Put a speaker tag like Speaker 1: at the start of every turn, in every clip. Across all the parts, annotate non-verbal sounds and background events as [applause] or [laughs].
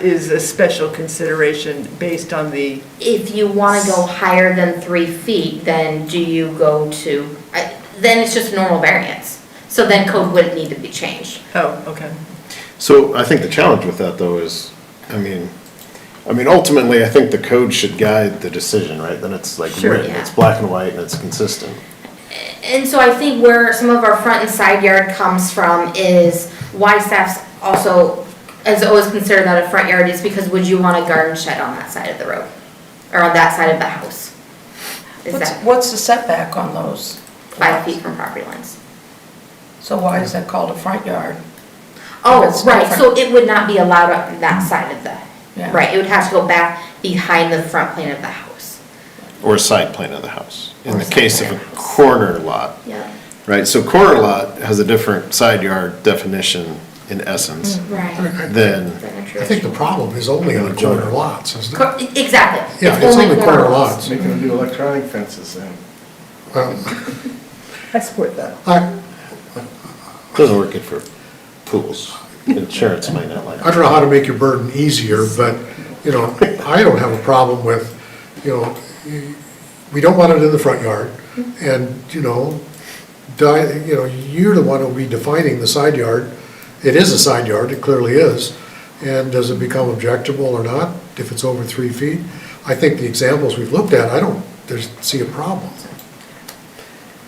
Speaker 1: is a special consideration based on the,
Speaker 2: If you want to go higher than three feet, then do you go to, I- then it's just normal variance. So then code wouldn't need to be changed.
Speaker 1: oh, okay.
Speaker 3: So I think the challenge with that though is, I mean, I mean ultimately, I think the code should guide the decision, right? Then it's like
Speaker 1: Sure,
Speaker 3: written,
Speaker 2: yeah.
Speaker 3: it's black and white and it's consistent.
Speaker 2: And so I think where some of our front and side yard comes from is why staff's also, has always considered that a front yard is because would you want a garden shed on that side of the road? Or on that side of the house? Is
Speaker 4: What's,
Speaker 2: that
Speaker 4: what's the setback on those?
Speaker 2: five feet from property lines?
Speaker 4: So why is that called a front yard?
Speaker 2: Oh,
Speaker 4: That's
Speaker 2: right, so
Speaker 4: different.
Speaker 2: it would not be allowed on that side of
Speaker 4: Yeah.
Speaker 2: the, right, it would have to go back behind the front plane of the house.
Speaker 3: Or side plan of the house, in
Speaker 2: Or
Speaker 3: the
Speaker 2: side
Speaker 3: case of
Speaker 2: plan
Speaker 3: a
Speaker 2: of the house.
Speaker 3: corner lot,
Speaker 2: Yeah.
Speaker 3: right? So corner lot has a different side yard definition in essence
Speaker 2: Right.
Speaker 3: than,
Speaker 5: I think the problem is only on corner lots, isn't it?
Speaker 2: Cor- e, Exactly.
Speaker 5: Yeah, it's only corner
Speaker 2: lots.
Speaker 5: lots.
Speaker 6: Making them do electronic fences then.
Speaker 5: Well,
Speaker 1: I support that.
Speaker 5: I,
Speaker 3: doesn't work good for pools. Insurance might not like
Speaker 5: I
Speaker 3: it.
Speaker 5: don't know how to make your burden easier, but, you know, I don't have a problem with, you know, we don't want it in the front yard, and, you know, di, you know, you're the one who'll be defining the side yard. It is a side yard, it clearly is, and does it become objectionable or not if it's over three feet? I think the examples we've looked at, I don't, there's, see a problem.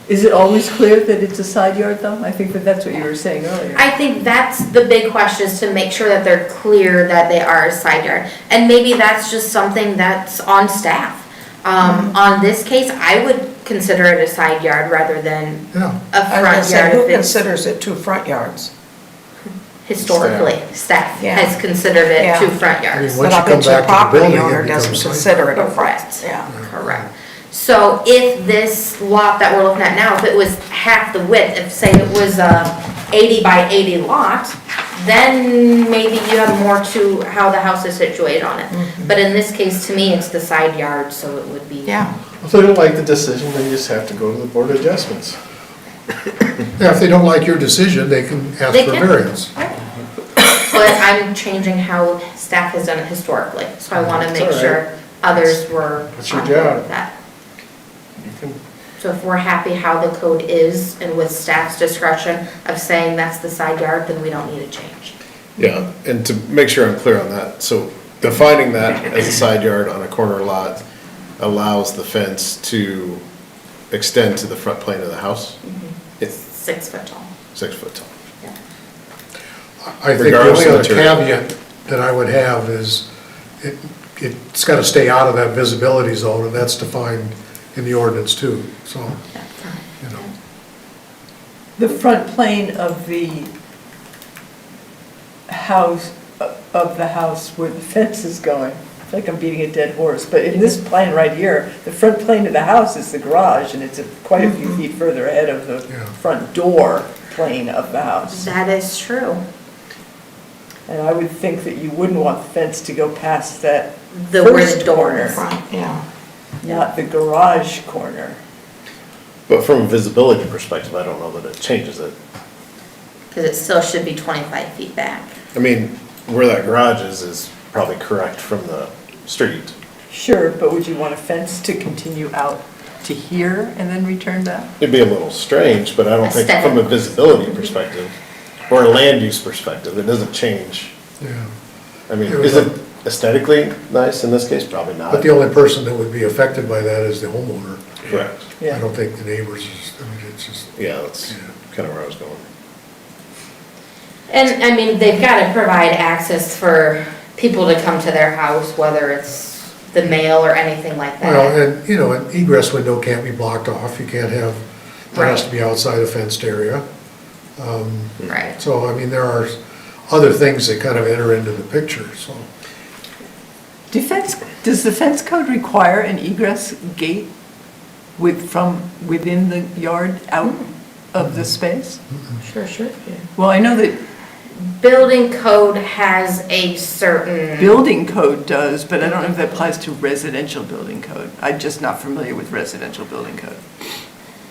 Speaker 1: Is it always clear that it's a side yard though? I think that that's what you were saying earlier.
Speaker 2: I think that's the big question is to make sure that they're clear that they are a side yard. And maybe that's just something that's on staff. Um,
Speaker 4: Mm-hmm.
Speaker 2: on this case, I would consider it a side yard rather than
Speaker 5: Yeah.
Speaker 2: a
Speaker 4: I was gonna
Speaker 2: front
Speaker 4: say,
Speaker 2: yard
Speaker 4: who
Speaker 2: if it's
Speaker 4: considers it two front yards?
Speaker 2: historically, staff
Speaker 4: Yeah.
Speaker 2: has considered it
Speaker 4: Yeah.
Speaker 2: two front
Speaker 5: I
Speaker 2: yards.
Speaker 5: mean, once you come back to the building,
Speaker 4: But I bet your property
Speaker 5: it
Speaker 4: owner doesn't
Speaker 5: becomes side
Speaker 4: consider it a front,
Speaker 2: Correct.
Speaker 4: yeah.
Speaker 2: Correct. So if this lot that we're looking at now, if it was half the width, if say it was a eighty by eighty lot, then maybe you have more to how the house is situated on
Speaker 4: Mm-hmm.
Speaker 2: it. But in this case, to me, it's the side yard, so it would be.
Speaker 4: Yeah,
Speaker 6: If they don't like the decision, then you just have to go to the board of adjustments.
Speaker 5: Yeah, if they don't like your decision, they can ask
Speaker 2: They
Speaker 5: for
Speaker 2: can.
Speaker 5: variance.
Speaker 2: But I'm changing how staff has done it historically, so I wanna
Speaker 6: It's
Speaker 2: make
Speaker 6: all
Speaker 2: sure others were.
Speaker 6: That's your
Speaker 2: on board with
Speaker 6: job.
Speaker 2: That.
Speaker 6: You can,
Speaker 2: So if we're happy how the code is and with staff's discretion of saying that's the side yard, then we don't need a change.
Speaker 3: Yeah, and to make sure I'm clear on that, so defining that as a side yard on a corner lot allows the fence to extend to the front plane of the house? It's
Speaker 2: Six foot tall.
Speaker 3: six foot tall.
Speaker 2: Yeah.
Speaker 5: I think the
Speaker 3: Regardless
Speaker 5: only
Speaker 3: of
Speaker 5: other
Speaker 3: material.
Speaker 5: caveat that I would have is, it, it's gotta stay out of that visibility zone, and that's defined in the ordinance too, so, you know.
Speaker 7: The front plane of the house, of the house where the [laughs] fence is going. I feel like I'm beating a dead horse, but in this plan right here, the front plane of the house is the garage, and it's quite a
Speaker 1: Mm-hmm.
Speaker 7: few feet further ahead of the
Speaker 5: Yeah.
Speaker 7: front door plane of the house.
Speaker 2: That is true.
Speaker 7: And I would think that you wouldn't want the fence to go past that
Speaker 2: The where the
Speaker 7: first
Speaker 2: door is.
Speaker 7: corner,
Speaker 4: front, yeah.
Speaker 7: not the garage corner.
Speaker 3: But from a visibility perspective, I don't know that it changes it.
Speaker 2: Because it still should be 25 feet back.
Speaker 3: I mean, where that garage is, is probably correct from the street.
Speaker 7: Sure, but would you want a fence to continue out to here and then return back?
Speaker 3: It'd be a little strange, but I don't think from a
Speaker 2: Aesthetic.
Speaker 3: visibility perspective or a land use perspective, it doesn't change.
Speaker 5: Yeah,
Speaker 3: I mean, is it aesthetically nice in this case? Probably not.
Speaker 5: but the only person that would be affected by that is the homeowner.
Speaker 3: Correct.
Speaker 5: I don't think the neighbors is, I mean, it's just,
Speaker 3: Yeah, that's
Speaker 5: Yeah.
Speaker 3: kind of where I was going.
Speaker 2: And, I mean, they've got to provide access for people to come to their house, whether it's the mail or anything like
Speaker 5: well,
Speaker 2: that.
Speaker 5: and, you know, an egress window can't be blocked off, you can't have, there has to be outside a fenced area.
Speaker 2: Right.
Speaker 5: So, I mean, there are other things that kind of enter into the picture, so.
Speaker 7: Defense, does the fence code require an egress gate with, from within the yard out of the space?
Speaker 2: Sure, sure.
Speaker 7: Well, I know that
Speaker 2: Building code has a certain.
Speaker 7: building code does, but I don't know if that applies to residential building code. I'm just not familiar with residential building code.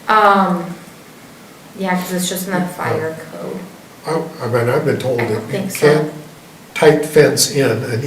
Speaker 2: Um, yeah, because it's just in the fire code.
Speaker 5: I, I mean, I've been told
Speaker 2: I don't
Speaker 5: that you
Speaker 2: think so.
Speaker 5: can't tight fence in an